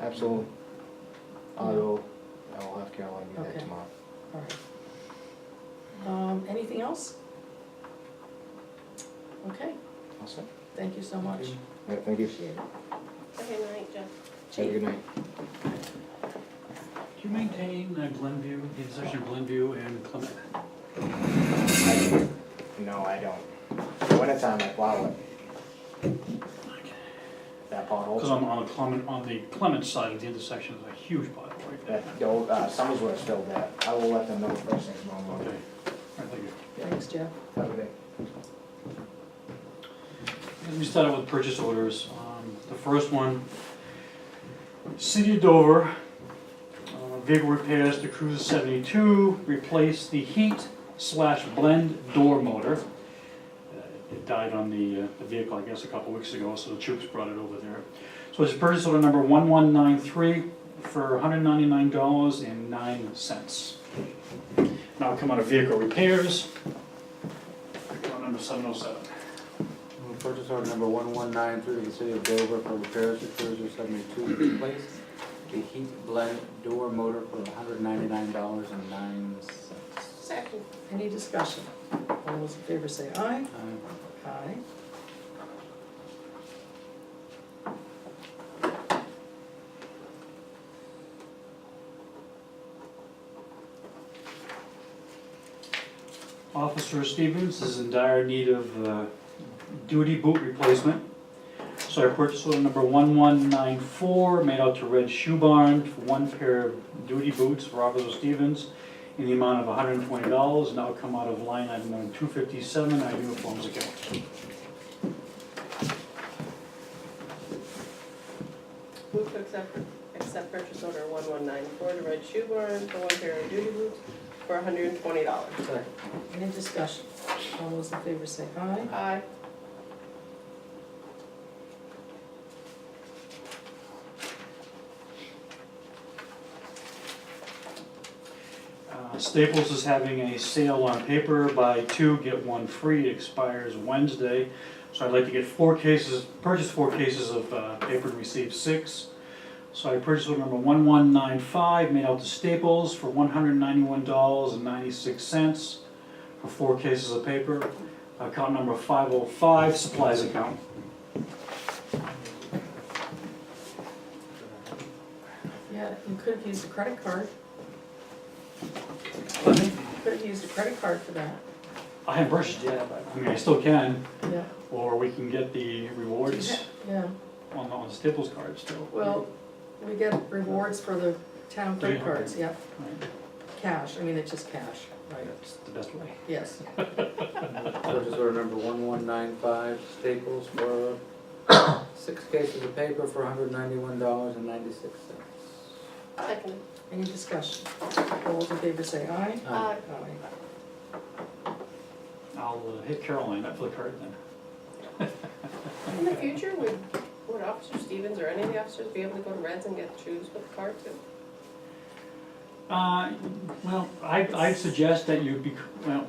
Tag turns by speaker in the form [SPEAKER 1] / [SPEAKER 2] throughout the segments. [SPEAKER 1] absolutely. I will, I will have Caroline do
[SPEAKER 2] Okay.
[SPEAKER 1] that tomorrow.
[SPEAKER 2] All right. Um, anything else? Okay,
[SPEAKER 1] All set?
[SPEAKER 2] thank you so much.
[SPEAKER 1] Yeah, thank you.
[SPEAKER 2] Appreciate it.
[SPEAKER 3] Okay, good night, Jeff.
[SPEAKER 1] Have a good night.
[SPEAKER 4] Do you maintain uh, Glenview, the intersection of Glenview and Clement?
[SPEAKER 1] No, I don't. Wintertime, I plow it. That
[SPEAKER 4] Because
[SPEAKER 1] pothole,
[SPEAKER 4] I'm on Clement, on the Clement side of the intersection, is a huge pothole right there.
[SPEAKER 1] that, the old, uh, Summersworth's still there. I will let them know first thing tomorrow
[SPEAKER 4] Okay,
[SPEAKER 1] morning.
[SPEAKER 4] all right, thank you.
[SPEAKER 2] Thanks, Jeff.
[SPEAKER 1] Have a good day.
[SPEAKER 4] Let me start out with purchase orders. Um, The first one, City of Dover, uh, vehicle repairs to Cruiser 72, replace the heat slash blend door motor. Uh, It died on the uh, the vehicle, I guess, a couple weeks ago, so the troops brought it over there. So it's purchase order number 1193 for $199.09. Now come out of vehicle repairs, account number 707.
[SPEAKER 5] Move Purchase order number one one nine through the city of Dover for repairs to Cruiser seventy-two to replace the heat blend door motor for hundred ninety-nine dollars and nine cents.
[SPEAKER 3] Second.
[SPEAKER 2] Any discussion? All those in favor say aye. Aye.
[SPEAKER 4] Officer Stevens is in dire need of uh, duty boot replacement. So I purchased order number 1194, made out to Red Shoe Barn for one pair of duty boots for Officer Stevens in the amount of $120, and that'll come out of line item number 257, our uniforms account.
[SPEAKER 3] Move to accept, accept purchase order one one nine four to Red Shoe Barn for one pair of duty boots for hundred and twenty dollars.
[SPEAKER 5] Second.
[SPEAKER 2] Any discussion? All those in favor say aye.
[SPEAKER 3] Aye.
[SPEAKER 4] Uh, Staples is having a sale on paper, buy two, get one free, it expires Wednesday. So I'd like to get four cases, purchase four cases of uh, paper and receive six. So I purchased order number one one nine five, made out to Staples for one hundred ninety-one dollars and ninety-six cents for four cases of paper. Account number five oh five, supplies account.
[SPEAKER 2] Yeah, you could have used a credit card. Could have used a credit card for that.
[SPEAKER 4] I haven't purchased yet, but I mean, I still can,
[SPEAKER 2] Yeah,
[SPEAKER 4] or we can get the rewards
[SPEAKER 2] yeah.
[SPEAKER 4] on the on the Staples card still.
[SPEAKER 2] Well, we get rewards for the town credit
[SPEAKER 4] Yeah.
[SPEAKER 2] cards, yeah.
[SPEAKER 4] Right.
[SPEAKER 2] Cash, I mean, it's just cash, right?
[SPEAKER 4] That's the best way.
[SPEAKER 2] Yes.
[SPEAKER 5] Purchase order number one one nine five Staples for six cases of paper for hundred ninety-one dollars and ninety-six cents.
[SPEAKER 3] Second.
[SPEAKER 2] Any discussion? All those in favor say aye.
[SPEAKER 3] Aye.
[SPEAKER 2] Aye.
[SPEAKER 4] I'll uh, hit Caroline up for the card then.
[SPEAKER 3] In the future, would, would Officer Stevens or any of the officers be able to go to Reds and get shoes with the card too?
[SPEAKER 4] Uh, well, I, I'd suggest that you, bec- well,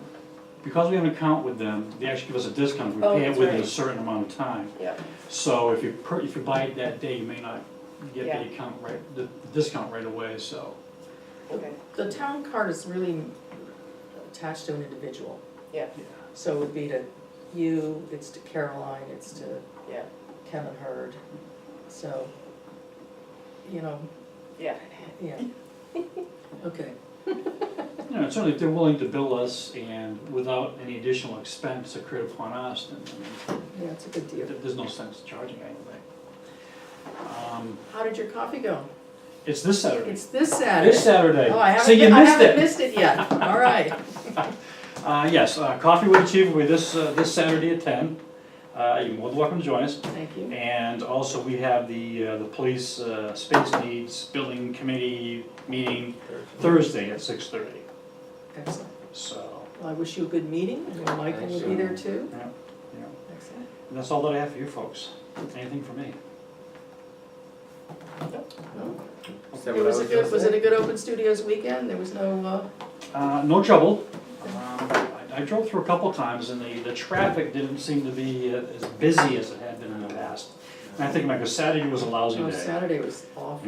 [SPEAKER 4] because we have an account with them, they actually give us a discount, we
[SPEAKER 3] Oh,
[SPEAKER 4] pay it
[SPEAKER 3] that's
[SPEAKER 4] within a
[SPEAKER 3] right.
[SPEAKER 4] certain amount of time.
[SPEAKER 3] Yeah.
[SPEAKER 4] So if you, per- if you buy it that day, you may not get
[SPEAKER 3] Yeah.
[SPEAKER 4] the account right, the discount right away, so.
[SPEAKER 3] Okay,
[SPEAKER 2] The town card is really attached to an individual,
[SPEAKER 3] yeah,
[SPEAKER 4] yeah.
[SPEAKER 2] so it would be to you, it's to Caroline, it's to
[SPEAKER 3] yeah,
[SPEAKER 2] Kevin Hurd, so, you know,
[SPEAKER 3] yeah.
[SPEAKER 2] yeah. Okay,
[SPEAKER 4] You know, certainly if they're willing to bill us and without any additional expense accrued upon us, then I
[SPEAKER 2] yeah, it's a good
[SPEAKER 4] mean,
[SPEAKER 2] deal.
[SPEAKER 4] th- there's no sense charging anyway. Um,
[SPEAKER 2] How did your coffee go?
[SPEAKER 4] It's this Saturday.
[SPEAKER 2] It's this Saturday.
[SPEAKER 4] This Saturday.
[SPEAKER 2] Oh, I
[SPEAKER 4] So
[SPEAKER 2] haven't,
[SPEAKER 4] you
[SPEAKER 2] been- I
[SPEAKER 4] missed it.
[SPEAKER 2] haven't missed it yet, all right.
[SPEAKER 4] Uh, yes, uh, Coffee with the Chief will be this, uh, this Saturday at ten. Uh, you're more than welcome to join us.
[SPEAKER 2] Thank you.
[SPEAKER 4] And also, we have the, uh, the police, uh, space needs building committee meeting Thursday at six thirty.
[SPEAKER 2] Excellent.
[SPEAKER 4] So,
[SPEAKER 2] Well, I wish you a good meeting, and Michael will be there too.
[SPEAKER 4] yeah, yeah.
[SPEAKER 2] Excellent.
[SPEAKER 4] And that's all that I have for you folks. Anything for me?
[SPEAKER 5] Is that
[SPEAKER 2] It
[SPEAKER 5] what I
[SPEAKER 2] was a
[SPEAKER 5] gonna
[SPEAKER 2] good, was
[SPEAKER 5] say?
[SPEAKER 2] it a good Open Studios weekend? There was no, uh,
[SPEAKER 4] Uh, no trouble. Um, I I drove through a couple times and the, the traffic didn't seem to be uh, as busy as it had been in the past. And I think like a Saturday was a lousy
[SPEAKER 2] no,
[SPEAKER 4] day.
[SPEAKER 2] Oh, Saturday was awful.